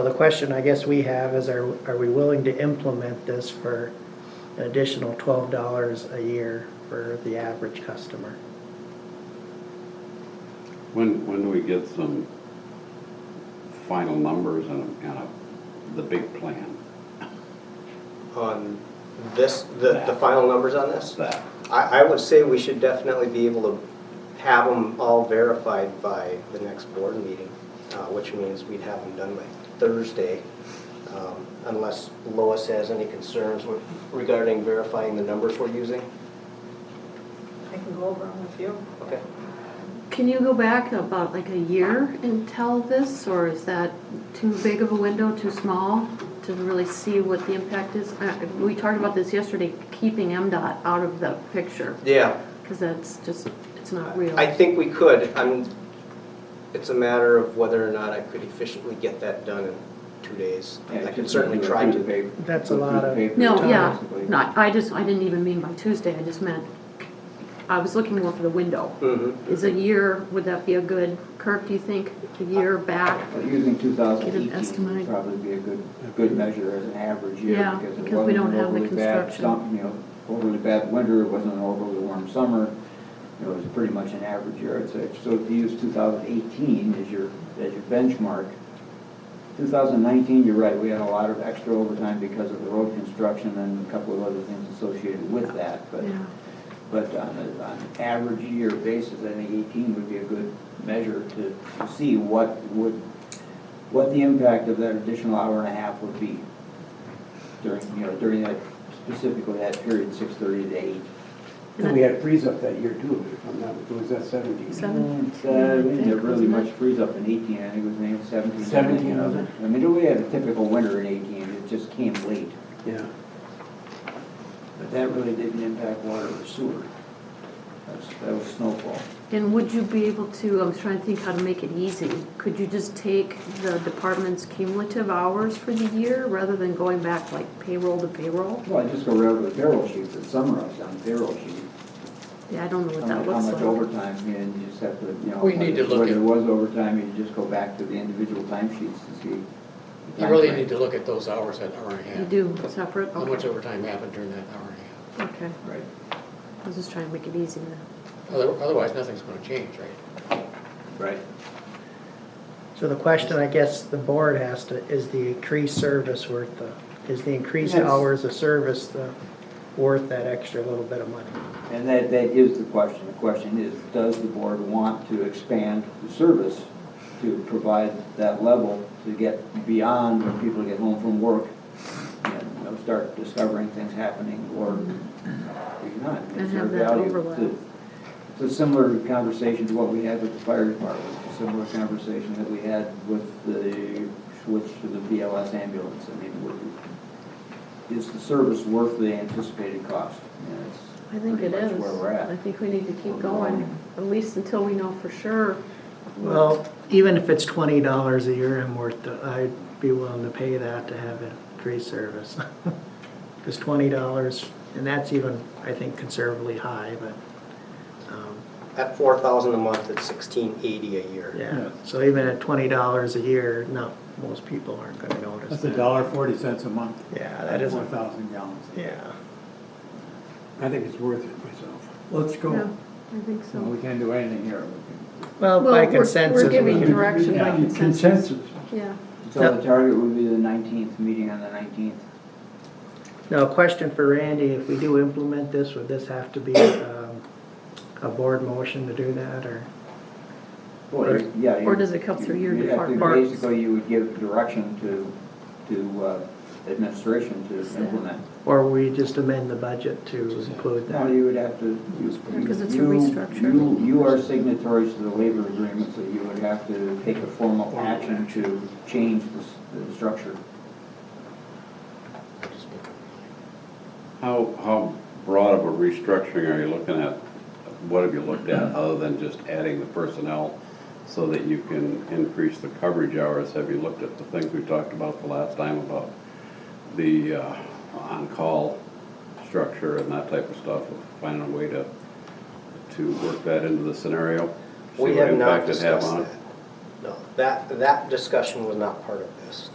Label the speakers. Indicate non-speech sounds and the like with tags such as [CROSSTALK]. Speaker 1: So The question I guess we have is, are, are we willing to implement this for an additional twelve dollars a year for the average customer?
Speaker 2: When, when do we get some final numbers and, and a- the big plan?
Speaker 3: on this, the, the final numbers on this?
Speaker 2: That,
Speaker 3: I, I would say we should definitely be able to have them all verified by the next board meeting, uh, which means we'd have them done by Thursday, um, unless Lois has any concerns with- regarding verifying the numbers we're using.
Speaker 4: I can go over them with you.
Speaker 3: Okay.
Speaker 5: Can you go back about like a year and tell this, or is that too big of a window, too small to really see what the impact is? Uh, We talked about this yesterday, keeping MDOT out of the picture,
Speaker 3: Yeah,
Speaker 5: because that's just, it's not real.
Speaker 3: I think we could, I'm, it's a matter of whether or not I could efficiently get that done in two days. I could certainly try to.
Speaker 1: That's a lot of-
Speaker 5: No, yeah, not, I just, I didn't even mean by Tuesday, I just meant, I was looking more for the window.
Speaker 3: Mhm.
Speaker 5: Is a year, would that be a good, Kirk, do you think, a year back?
Speaker 6: But Using two thousand
Speaker 5: Get an
Speaker 6: eighteen
Speaker 5: estimate.
Speaker 6: would probably be a good, a good measure as an average year.
Speaker 5: Yeah,
Speaker 6: it
Speaker 5: because we
Speaker 6: wasn't
Speaker 5: don't
Speaker 6: an
Speaker 5: have the
Speaker 6: overly bad
Speaker 5: construction.
Speaker 6: sum- You know, overly bad winter, it wasn't an overly warm summer, it was pretty much an average year, I'd say. So if you use two thousand eighteen as your, as your benchmark, two thousand nineteen, you're right, we had a lot of extra overtime because of the road construction and a couple of other things associated with that, but,
Speaker 5: Yeah.
Speaker 6: but on a, on an average year basis, I think eighteen would be a good measure to to see what would what the impact of that additional hour and a half would be during, you know, during that, specifically that period, six thirty to eight.
Speaker 7: And we had freeze up that year too, if I'm not, was that seventeen?
Speaker 5: Seven?
Speaker 6: Uh, we didn't
Speaker 5: Yeah,
Speaker 6: have
Speaker 5: wasn't
Speaker 6: really
Speaker 5: it?
Speaker 6: much freeze up in eighteen, I think it was maybe seventeen.
Speaker 7: 17,
Speaker 6: I
Speaker 7: was it?
Speaker 6: mean, we had a typical winter in eighteen, it just came late,
Speaker 7: Yeah.
Speaker 6: but that really didn't impact water or sewer. That's, that was snowfall.
Speaker 5: And would you be able to, I was trying to think how to make it easy, could you just take the department's cumulative hours for the year rather than going back like payroll to payroll?
Speaker 6: Well, I just go right over the payroll sheet, that summarized on the payroll sheet.
Speaker 5: Yeah, I don't know what
Speaker 6: How
Speaker 5: that
Speaker 6: mu- how
Speaker 5: looks
Speaker 6: much
Speaker 5: like.
Speaker 6: overtime, and you just have to, you know.
Speaker 8: We need to
Speaker 6: whether-
Speaker 8: look at-
Speaker 6: Whether it was overtime, you just go back to the individual timesheets to see. the
Speaker 8: You really
Speaker 6: timeframe.
Speaker 8: need to look at those hours, that hour and a half.
Speaker 5: You do separate,
Speaker 8: How much
Speaker 5: okay,
Speaker 8: overtime happened during that hour and a
Speaker 5: okay,
Speaker 6: Right.
Speaker 5: I was just trying to make it easy then.
Speaker 8: half? Other- Otherwise, nothing's gonna change, right?
Speaker 6: Right.
Speaker 1: So the question I guess the board has to, is the increased service worth the, is the increased
Speaker 6: Yes.
Speaker 1: hours of service the, worth that extra little bit of money?
Speaker 6: And that, that is the question. The question is, does the board want to expand the service to provide that level to get beyond when people get home from work and you know, start discovering things happening or maybe not?
Speaker 5: And
Speaker 6: Is there
Speaker 5: have that
Speaker 6: value to-
Speaker 5: overlap.
Speaker 6: It's a similar conversation to what we had with the fire department, It's a similar conversation that we had with the switch to the BLS ambulance. I mean, we're- is the service worth the anticipated cost? And it's
Speaker 5: I think it
Speaker 6: pretty much
Speaker 5: is.
Speaker 6: where we're
Speaker 5: I
Speaker 6: at.
Speaker 5: think we need to keep going, at least until we know for sure.
Speaker 1: Well, even if it's twenty dollars a year, I'm worth, the- I'd be willing to pay that to have increased service. [LAUGHS] Cause twenty dollars, and that's even, I think conservatively high, but, um,
Speaker 3: At four thousand a month, it's sixteen eighty a year.
Speaker 1: yeah. So even at twenty dollars a year, no, most people aren't gonna notice
Speaker 7: That's a
Speaker 1: that.
Speaker 7: dollar forty cents a month.
Speaker 1: Yeah, that is,
Speaker 7: Four thousand gallons.
Speaker 1: yeah.
Speaker 7: I think it's worth it myself.
Speaker 6: Let's
Speaker 5: Yeah, I think
Speaker 7: Well,
Speaker 5: so.
Speaker 7: We can't do anything here. We
Speaker 1: Well,
Speaker 5: Well,
Speaker 1: by
Speaker 5: we're- we're
Speaker 1: consensus, we
Speaker 5: giving
Speaker 1: can,
Speaker 5: Direction
Speaker 7: can-
Speaker 5: by
Speaker 7: Yeah,
Speaker 5: consensus.
Speaker 7: Consensus.
Speaker 5: Yeah,
Speaker 6: So the target would be the nineteenth, meeting on the nineteenth.
Speaker 1: now, a question for Randy, if we do implement this, would this have to be, um, a board motion to do that, or?
Speaker 6: Or, yeah.
Speaker 5: Or
Speaker 6: you-
Speaker 5: does it come through your
Speaker 6: you'd have to-
Speaker 5: department?
Speaker 6: Basically, you would give direction to, to uh, administration to implement.
Speaker 1: Or we just amend the budget to include
Speaker 6: No,
Speaker 1: that?
Speaker 6: you would have to. you-
Speaker 5: Yeah, 'cause it's a
Speaker 6: you-
Speaker 5: restructure.
Speaker 6: You, you are signatories to the labor agreement, so you would have to take a formal action to change the, s- the structure.
Speaker 8: I'll just pick up.
Speaker 2: how, how broad of a restructuring are you looking at? What have you looked at, other than just adding the personnel so that you can increase the coverage hours? Have you looked at the things we talked about the last time about the uh, on-call structure and that type of stuff? Finding a way to, to work that into the scenario? See
Speaker 3: We
Speaker 2: what
Speaker 3: have not
Speaker 2: impact it'd have
Speaker 3: discussed
Speaker 2: on it?
Speaker 3: that. No, that, that discussion was not part of this.